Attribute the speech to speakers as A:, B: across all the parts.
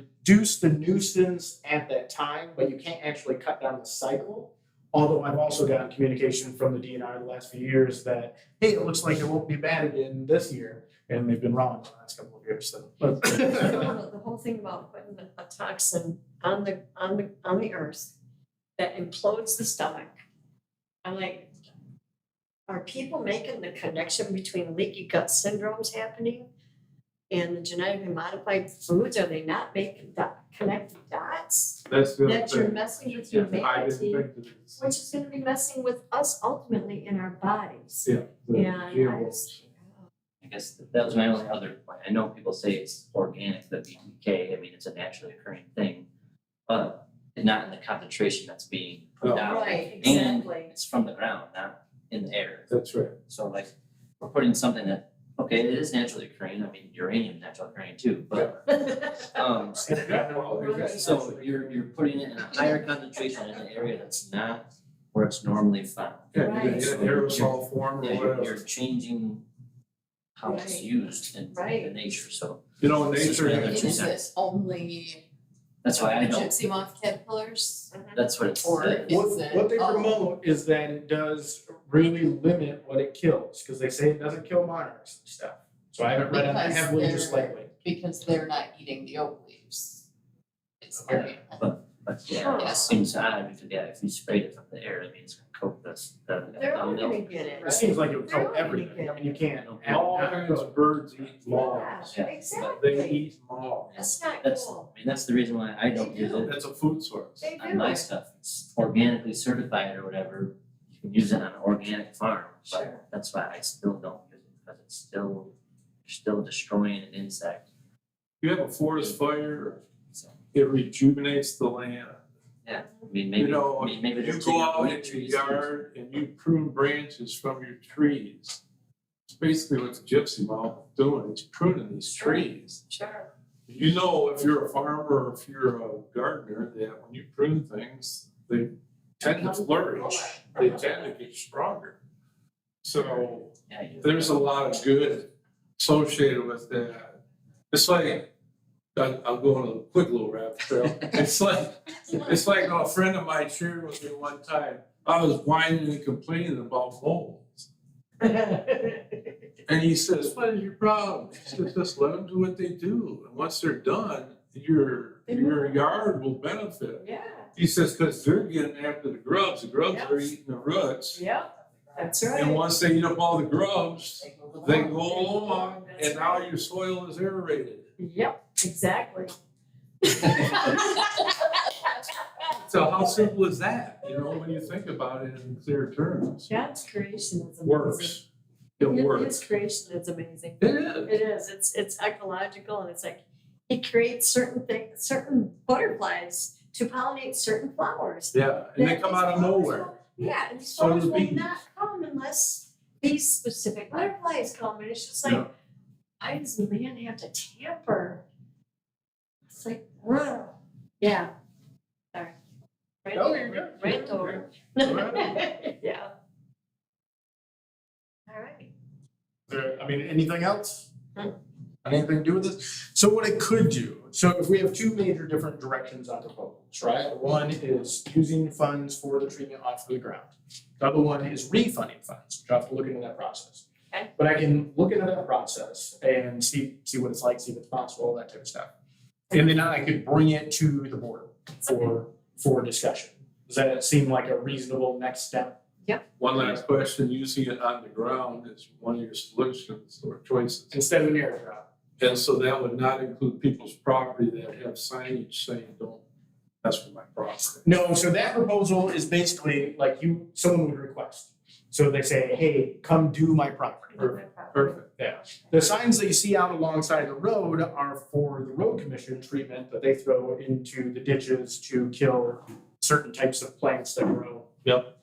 A: reduce the nuisance at that time, but you can't actually cut down the cycle. Although I've also gotten communication from the DNR the last few years that, hey, it looks like it won't be bad again this year, and they've been wrong the last couple of years, so. but-
B: So The whole thing about putting a toxin on the, on the, on the earth that implodes the stomach. I'm like, are people making the connection between leaky gut syndromes happening and the genetically modified foods? Are they not making that, connect dots?
C: That's the other
B: That you're
C: thing.
B: messing with
C: Yeah, I didn't
B: humanity,
C: think that it's-
B: which is gonna be messing with us ultimately in our bodies.
C: Yeah, the
B: And I
C: GMOs.
B: just,
D: I guess th- that was my only other point. I know people say it's organic, the BTK, I mean, it's a naturally occurring thing, but not in the concentration that's being
C: No.
D: put out.
B: right,
D: And
B: exactly.
D: it's from the ground, not in the air.
C: That's right.
D: So like, we're putting something that, okay, it is naturally occurring, I mean, uranium naturally occurring too, but um so you're you're putting it in a higher concentration in an area that's not where it's normally found.
C: Yeah, you're gonna
B: Right.
C: get an aerosol form
D: Yeah,
C: or
D: you're
C: whatever.
D: you're changing how it's
B: Right.
D: used in in the
B: Right.
D: nature, so
C: You know, in
D: It's just
C: nature,
D: another
E: It
D: two
E: is
D: cents.
E: this only
D: that's why I know,
E: gypsy moth caterpillars
D: that's what it's.
E: or is it?
A: What, what they
E: oh,
A: promote is that it does really limit what it kills, because they say it doesn't kill monarchs and stuff. So I haven't read on that
E: Because
A: heavily or
E: they're-
A: slightly.
E: Because they're not eating the oak leaves. It's
D: Yeah.
E: their,
D: But yeah, it
E: Yes.
D: seems odd because yeah, if you sprayed it from the air, I mean, it's gonna coat this, the
B: They're all
D: abdominal.
B: gonna get it.
A: It seems like it would
B: They're
A: kill
B: all gonna
A: everything, I
B: get
A: mean, you
B: it.
A: can't. add-
C: All
A: not
C: kinds
A: cook.
C: of birds eat
B: Yeah,
C: moths. They
B: exactly.
C: eat moths.
B: That's not
D: That's, I
B: cool.
D: mean, that's the reason why I don't
B: They
D: use
B: do.
D: it
C: That's a food source.
B: They
D: on
B: do
D: my
B: it.
D: stuff, it's organically certified or whatever, you can use it on an organic farm,
B: Sure.
D: but that's why I still don't use it, because it's still, you're still destroying an insect,
C: You have a forest fire,
D: so.
C: it rejuvenates the land.
D: I mean,
C: You
D: maybe,
C: know,
D: I mean, maybe
C: you
D: there's
C: go
D: taking
C: out
D: away
C: in your
D: trees.
C: yard and you prune branches from your trees. It's basically what the gypsy moth is doing, it's pruning these trees.
B: Sure.
C: You know, if you're a farmer or if you're a gardener, that when you prune things, they tend to flourish, they tend to get stronger. So
D: Yeah, you-
C: there's a lot of good associated with that. It's like, I'll, I'll go on a quick little rabbit trail. It's like, it's like a friend of mine shared with me one time. I was whining and complaining about molds. And he says, what is your problem? I said, just let them do what they do. And once they're done, your, your yard will benefit.
B: Yeah,
C: He says, because they're getting after the grubs. The grubs are eating the roots.
B: yeah, that's
C: And
B: right.
C: once they eat up all the grubs, they go along,
B: That's
C: and now
B: right.
C: your soil is aerated.
B: Yep, exactly.
C: So how simple is that, you know, when you think about it in clear terms?
B: God's creation is amazing.
C: Works, it
B: His-
C: works.
B: His creation is amazing.
C: It is,
B: It is, it's, it's ecological and it's like, it creates certain things, certain butterflies to pollinate certain flowers.
C: yeah, and they
B: That
C: come
B: these
C: out of
B: flowers
C: nowhere.
B: will- Yeah, and these
C: So do
B: flowers will
C: bees.
B: not come unless these specific butterflies come, and it's just
C: Yeah.
B: like, I as a man have to tamper. It's like, wow, yeah, sorry. Right
C: No, you're
B: over,
C: good.
B: right over.
C: You're
B: Yeah. All right.
A: There, I mean, anything else?
B: Hmm.
A: Anything to do with this? So what it could do, so if we have two major different directions on proposals, right? One is using funds for the treatment off the ground. The other one is refunding funds, which I have to look into that process.
B: Okay.
A: But I can look into that process and see, see what it's like, see if it's possible, all that type of stuff. And then I could bring it to the board for, for discussion. Does that seem like a reasonable next step?
C: One last question, using it on the ground is one of your solutions or choices.
A: Instead of an air drop?
C: And so that would not include people's property that have signage saying, don't mess with my property.
A: No, so that proposal is basically like you, someone would request. So they say, hey, come do my property.
C: Perfect,
A: The signs that you see out alongside the road are for the road commission treatment that they throw into the ditches to kill certain types of plants that grow. Yep.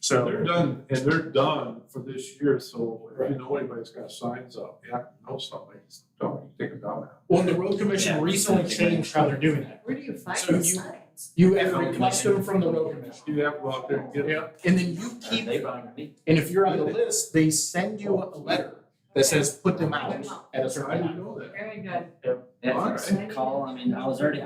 A: So.
C: they're done, and they're done for this year, so if you know anybody's got signs up, you have to know somebody, don't take them down now.
A: Well, the road commission
D: Yeah.
A: recently changed how they're doing that.
B: Where do you find
A: So
B: the
A: you-
B: signs?
A: You have to request them from the road commission.
C: You have to go out there and get it.
A: Yeah, and then you
D: Are
A: keep,
D: they bothering me?
A: and if you're on the list, they send you a letter that says put them
B: Put
A: out
B: them out.
A: at a
C: I
A: certain time.
C: didn't know that.
B: Very good.
D: That's a call, I mean, I was already